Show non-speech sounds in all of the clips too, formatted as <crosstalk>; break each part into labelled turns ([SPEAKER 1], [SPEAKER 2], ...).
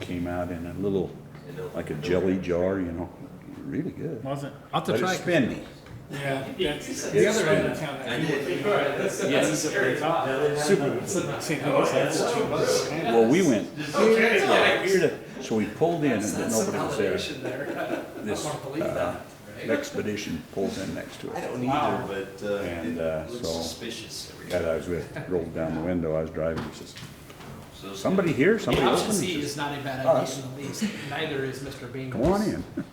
[SPEAKER 1] came out in a little, like a jelly jar, you know, really good.
[SPEAKER 2] Was it?
[SPEAKER 3] I'll have
[SPEAKER 1] But
[SPEAKER 3] to try.
[SPEAKER 1] it's spinny.
[SPEAKER 2] Yeah, that's the
[SPEAKER 1] It's
[SPEAKER 2] other end of
[SPEAKER 1] spinning.
[SPEAKER 2] town. Yes. Super, St.
[SPEAKER 4] Oh,
[SPEAKER 2] Louis, that's two bucks.
[SPEAKER 1] Well, we went here to, so we pulled in and then nobody was there. This uh, expedition pulls in next to
[SPEAKER 5] I
[SPEAKER 1] us.
[SPEAKER 5] don't either, but uh,
[SPEAKER 1] And, uh,
[SPEAKER 5] it looks
[SPEAKER 1] so-
[SPEAKER 5] suspicious every
[SPEAKER 1] Guy that
[SPEAKER 5] time.
[SPEAKER 1] I was with rolled down the window, I was driving, he says,
[SPEAKER 5] So it's-
[SPEAKER 1] somebody here,
[SPEAKER 3] The
[SPEAKER 1] somebody
[SPEAKER 3] option
[SPEAKER 1] else.
[SPEAKER 3] C is not a bad idea in the least, neither is Mr. Bingo's.
[SPEAKER 1] Come on in. <laughs>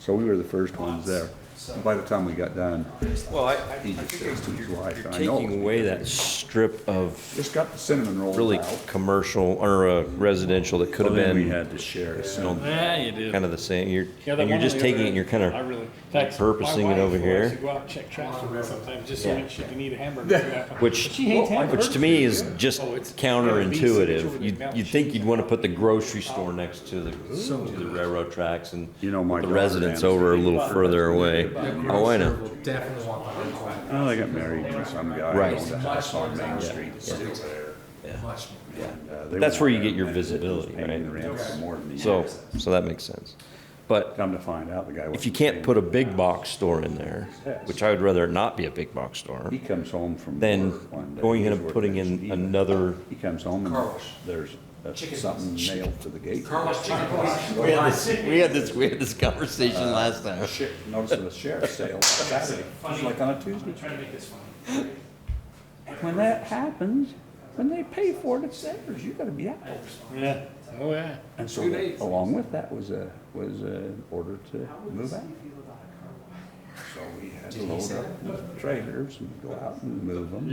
[SPEAKER 1] So we were the first ones there. And By the time we got done,
[SPEAKER 4] Well, I,
[SPEAKER 1] he just says to his wife,
[SPEAKER 4] you're
[SPEAKER 1] I know. it was
[SPEAKER 4] taking away
[SPEAKER 1] because
[SPEAKER 4] that strip
[SPEAKER 1] we
[SPEAKER 4] of
[SPEAKER 1] Just got the cinnamon rolls out.
[SPEAKER 4] really commercial or uh, residential that could
[SPEAKER 1] So
[SPEAKER 4] have
[SPEAKER 1] then we
[SPEAKER 4] been
[SPEAKER 1] had to share a
[SPEAKER 4] know,
[SPEAKER 1] cinnamon.
[SPEAKER 2] Yeah, you do.
[SPEAKER 4] kind of the same. You're,
[SPEAKER 2] Yeah, that
[SPEAKER 4] and you're
[SPEAKER 2] one on
[SPEAKER 4] just
[SPEAKER 2] the
[SPEAKER 4] taking
[SPEAKER 2] other
[SPEAKER 4] it, and you're kind
[SPEAKER 2] end, I
[SPEAKER 4] of,
[SPEAKER 2] really- in fact,
[SPEAKER 4] purposing
[SPEAKER 2] my
[SPEAKER 4] it over
[SPEAKER 2] wife likes
[SPEAKER 4] here.
[SPEAKER 2] to Go out and check trash for me sometimes, just so much if you need a hamburger.
[SPEAKER 4] which,
[SPEAKER 2] She hates
[SPEAKER 4] which
[SPEAKER 2] hamburgers.
[SPEAKER 4] to me is just
[SPEAKER 2] Oh, it's-
[SPEAKER 4] counterintuitive.
[SPEAKER 2] it's-
[SPEAKER 4] You'd, you'd think you'd want to put the grocery store next to the, to the railroad tracks and
[SPEAKER 1] You know, my
[SPEAKER 4] put
[SPEAKER 1] daughter
[SPEAKER 4] the residents
[SPEAKER 1] dances.
[SPEAKER 4] over a little further away. Oh, I know.
[SPEAKER 3] Definitely want that.
[SPEAKER 1] Oh, they got married and some guy
[SPEAKER 4] Right.
[SPEAKER 1] owned a house on Main Street. Still there.
[SPEAKER 4] Yeah.
[SPEAKER 1] And, uh, they
[SPEAKER 4] That's where you
[SPEAKER 1] went
[SPEAKER 4] get
[SPEAKER 1] in
[SPEAKER 4] your
[SPEAKER 1] and
[SPEAKER 4] visibility,
[SPEAKER 1] paying
[SPEAKER 4] right?
[SPEAKER 1] the rent for more than a
[SPEAKER 4] So,
[SPEAKER 1] year.
[SPEAKER 4] so that makes sense. But
[SPEAKER 1] Come to find out, the guy.
[SPEAKER 4] If you
[SPEAKER 1] wasn't
[SPEAKER 4] can't
[SPEAKER 1] paying.
[SPEAKER 4] put a big box store in there, which I would rather it not be a big box store,
[SPEAKER 1] He comes home from
[SPEAKER 4] then
[SPEAKER 1] work one day.
[SPEAKER 4] going in
[SPEAKER 1] he's
[SPEAKER 4] and
[SPEAKER 1] working
[SPEAKER 4] putting
[SPEAKER 1] at
[SPEAKER 4] in
[SPEAKER 1] Stevens.
[SPEAKER 4] another,
[SPEAKER 1] He comes home and
[SPEAKER 5] Carlos.
[SPEAKER 1] there's uh, something nailed to the gate.
[SPEAKER 4] we had this, we had this, we had this conversation last time.
[SPEAKER 1] Shit, Notice of a sheriff's
[SPEAKER 2] <laughs>
[SPEAKER 1] sale on Saturday, it's like on a Tuesday.
[SPEAKER 2] Trying to make this funny.
[SPEAKER 1] When that happens, when they pay for it, it's theirs, you gotta be out.
[SPEAKER 2] Yeah, oh yeah.
[SPEAKER 1] And so that- along with that was a, was an order to move out. So we had to load up the trailers and go out and move them.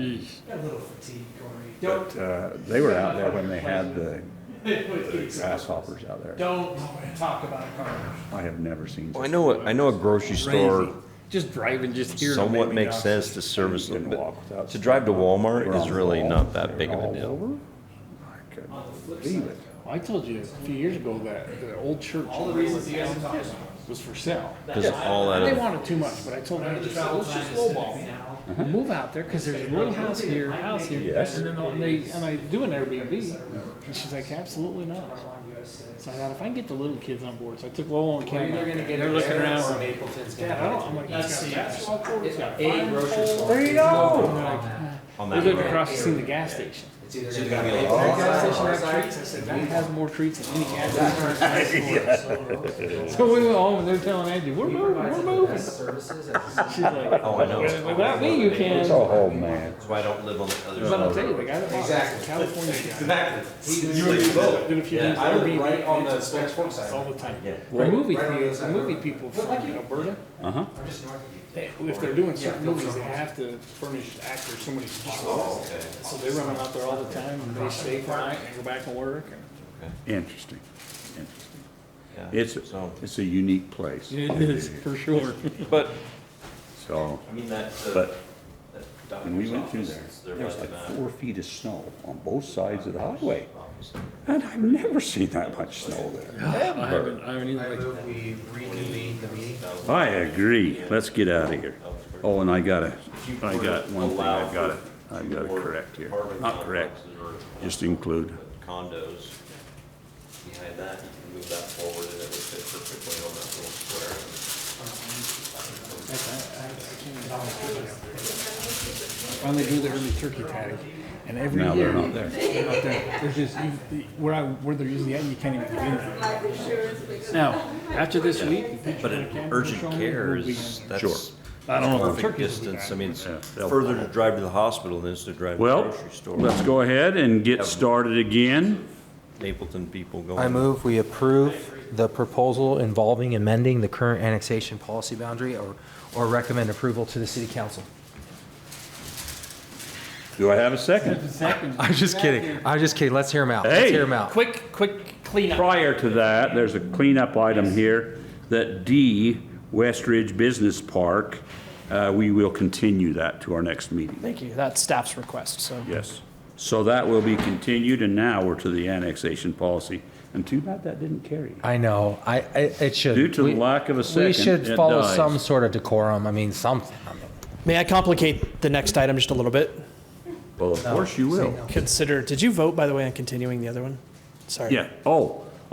[SPEAKER 1] But uh, they were out there when they had the the grasshoppers out there.
[SPEAKER 2] Don't talk about cars.
[SPEAKER 1] I have never seen.
[SPEAKER 4] I know, a- I know a grocery store
[SPEAKER 3] Just driving, just hearing. them
[SPEAKER 4] somewhat
[SPEAKER 3] made me
[SPEAKER 4] makes
[SPEAKER 3] nauseous.
[SPEAKER 4] sense to service
[SPEAKER 1] You
[SPEAKER 4] them,
[SPEAKER 1] can walk
[SPEAKER 4] but
[SPEAKER 1] without
[SPEAKER 4] to drive to
[SPEAKER 1] stepping on-
[SPEAKER 4] Walmart
[SPEAKER 1] They're on
[SPEAKER 4] is
[SPEAKER 1] the
[SPEAKER 4] really
[SPEAKER 1] wall,
[SPEAKER 4] not that
[SPEAKER 1] they're
[SPEAKER 4] big of a
[SPEAKER 1] all
[SPEAKER 4] deal.
[SPEAKER 1] over. I couldn't believe it.
[SPEAKER 2] I told you a few years ago that the old church. All the reasons you guys Was for sale.
[SPEAKER 4] Because all that,
[SPEAKER 2] They
[SPEAKER 4] other-
[SPEAKER 2] wanted too much, but I told them, let's just lowball. it. Move out there, cause there's a little house here, house here,
[SPEAKER 1] Yes.
[SPEAKER 2] and then they'll- and they, and I do an Airbnb. And she's like, absolutely not. So I thought, if I can get the little kids on board, so I took Lowell and Cam. out. They're looking around. Dad, I don't, I'm like, it's got basketball court, it's got fine pole.
[SPEAKER 1] There you go.
[SPEAKER 2] And they're like,
[SPEAKER 4] on
[SPEAKER 2] They
[SPEAKER 4] that
[SPEAKER 2] lived
[SPEAKER 4] road.
[SPEAKER 2] across the street from the gas station.
[SPEAKER 5] It's either gonna be a
[SPEAKER 2] That
[SPEAKER 5] long
[SPEAKER 2] gas station
[SPEAKER 5] time
[SPEAKER 2] had treats. I said, that has more treats than any gas station. <laughs> in the store." So we went home and they're telling Angie, we're moving, we're moving. She's like,
[SPEAKER 4] Oh, I know.
[SPEAKER 2] without me, you can. not
[SPEAKER 1] Oh, man.
[SPEAKER 4] That's why I don't live on the other
[SPEAKER 2] But I'll
[SPEAKER 4] side.
[SPEAKER 2] tell you, the guy that bought it, California guy.
[SPEAKER 5] Exactly. You and me both.
[SPEAKER 2] Did a few
[SPEAKER 4] Yeah.
[SPEAKER 2] things.
[SPEAKER 5] I live
[SPEAKER 2] Airbnb
[SPEAKER 5] right on the
[SPEAKER 2] pages,
[SPEAKER 5] Spanish Fork
[SPEAKER 2] All
[SPEAKER 5] side.
[SPEAKER 2] the time.
[SPEAKER 4] Yeah.
[SPEAKER 2] The movie
[SPEAKER 5] Right on the other
[SPEAKER 2] theaters,
[SPEAKER 5] side
[SPEAKER 2] the
[SPEAKER 5] of
[SPEAKER 2] movie
[SPEAKER 5] the
[SPEAKER 2] people from Alberta,
[SPEAKER 1] Uh-huh.
[SPEAKER 5] I'm just north of you.
[SPEAKER 2] they- if they're doing certain
[SPEAKER 5] Yeah.
[SPEAKER 2] movies, they have to furnish actors so many spots.
[SPEAKER 5] Oh, okay.
[SPEAKER 2] So they run out there all the time and they stay for night and go back and work and.
[SPEAKER 1] Interesting, interesting.
[SPEAKER 4] Yeah.
[SPEAKER 1] It's,
[SPEAKER 4] So-
[SPEAKER 1] it's a unique place.
[SPEAKER 2] It is, for sure.
[SPEAKER 4] But,
[SPEAKER 1] So,
[SPEAKER 4] I mean, that,
[SPEAKER 1] but
[SPEAKER 4] that
[SPEAKER 1] when we
[SPEAKER 4] doctor's
[SPEAKER 1] went through
[SPEAKER 4] office,
[SPEAKER 1] there,
[SPEAKER 4] they're
[SPEAKER 1] there was
[SPEAKER 4] like
[SPEAKER 1] like
[SPEAKER 4] that.
[SPEAKER 1] four feet of snow on both sides of the highway.
[SPEAKER 4] Office.
[SPEAKER 1] And I've never seen that much snow there.
[SPEAKER 3] I haven't, I haven't
[SPEAKER 5] I
[SPEAKER 3] even like.
[SPEAKER 5] move we reconvene the meeting.
[SPEAKER 1] I agree. Let's get out of here. Oh, and I gotta, I got one thing I've gotta, I've gotta correct here. Not correct, just include.
[SPEAKER 4] condos behind that, you can move that forward and it would fit perfectly on that little square.
[SPEAKER 2] Finally do the early turkey tag, and every
[SPEAKER 1] Now
[SPEAKER 2] year.
[SPEAKER 1] they're not there.
[SPEAKER 2] they're not there. There's just, you- where I, where they're using the, ad, you can't even get in there. Now, after this week.
[SPEAKER 4] But in urgent care is,
[SPEAKER 1] Sure.
[SPEAKER 4] that's
[SPEAKER 2] I don't know if the
[SPEAKER 4] perfect
[SPEAKER 2] turkeys will be
[SPEAKER 4] distance, I
[SPEAKER 2] back.
[SPEAKER 4] mean, it's
[SPEAKER 1] Yeah, they'll-
[SPEAKER 4] further to drive to the hospital than it is to drive to the
[SPEAKER 1] Well,
[SPEAKER 4] grocery store.
[SPEAKER 1] let's go ahead and get started again.
[SPEAKER 4] Napleton people
[SPEAKER 6] I
[SPEAKER 4] going,
[SPEAKER 6] move we approve the proposal involving amending the current annexation policy boundary or, or recommend approval to the city council.
[SPEAKER 1] Do I have a second?
[SPEAKER 6] <laughs> I'm just kidding. I'm just kidding. Let's hear him out.
[SPEAKER 1] Hey.
[SPEAKER 6] Let's hear him out.
[SPEAKER 3] Quick, quick cleanup.
[SPEAKER 1] Prior to that, there's a cleanup item here, that D, West Ridge Business Park, uh, we will continue that to our next meeting.
[SPEAKER 3] Thank you, that's staff's request, so.
[SPEAKER 1] Yes. So that will be continued, and now we're to the annexation policy. And too bad that didn't carry.
[SPEAKER 6] I know. I, I, it should.
[SPEAKER 1] Due to
[SPEAKER 6] we-
[SPEAKER 1] lack of a
[SPEAKER 6] We
[SPEAKER 1] second, it
[SPEAKER 6] should follow
[SPEAKER 1] dies.
[SPEAKER 6] some sort of decorum. I mean, something.
[SPEAKER 3] May I complicate the next item just a little bit?
[SPEAKER 1] Well, of course you will.
[SPEAKER 3] Consider, did you vote, by the way, on continuing the other one? Sorry.
[SPEAKER 1] Yeah, oh,